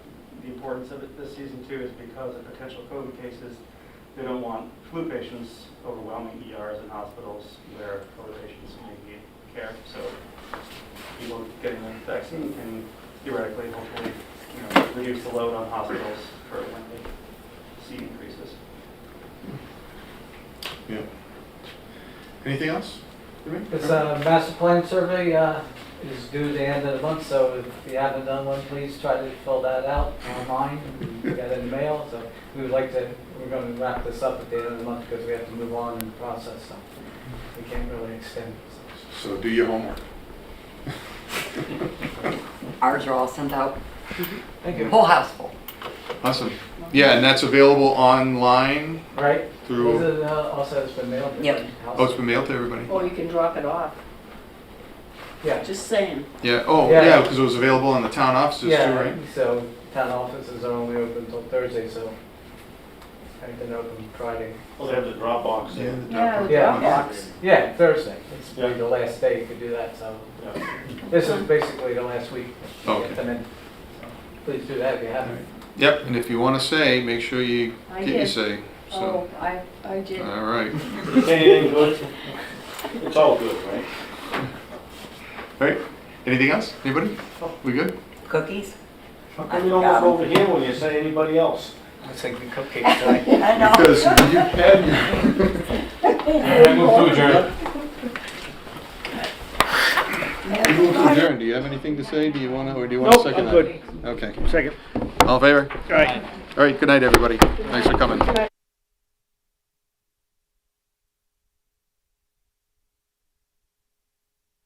importance of it this season too is because of potential COVID cases. They don't want flu patients overwhelming ERs and hospitals where COVID patients may need care. So people getting the vaccine can theoretically, hopefully, you know, reduce the load on hospitals for when they see increases. Yeah. Anything else? Jimmy? This uh, master plan survey uh, is due the end of the month, so if you haven't done one, please try to fill that out online. and We got it in the mail, so we would like to, we're going to wrap this up at the end of the month because we have to move on in the process, so we can't really extend. it. So do your homework. Ours are all sent out, Thank you. whole house full. Awesome. Yeah, and that's available online Right? Is through, it, uh, Also, it's been mailed. to Yep. the house? oh, it's been mailed to everybody? Or you can drop it off, Yeah. just saying. Yeah, oh, Yeah. yeah, because it was available in the town offices too, Yeah, right? so town offices are only open until Thursday, so I can open Friday. Well, they have the Dropbox. Yeah, there. the doc- Yeah. Dropbox. Yeah, Thursday. It's Yeah. be the last day you could do that, so Yeah. this is basically the last week. Okay. And then, so Please do that if you haven't. Yep, and if you want to say, make sure you I get your did. say. So, Oh, I, I did. all right. Anything good? It's all good, right? All right, anything else? Anybody? Oh. We good? Cookies? How come you don't look over here when you say anybody else? I was thinking cupcakes, right? I know. Because you had, I move to adjourn. you moved to adjourn. Do you have anything to say? Do you want to, or do you want to second that? Okay. Second. All in favor? All right. All right, good night, everybody. Thanks for coming.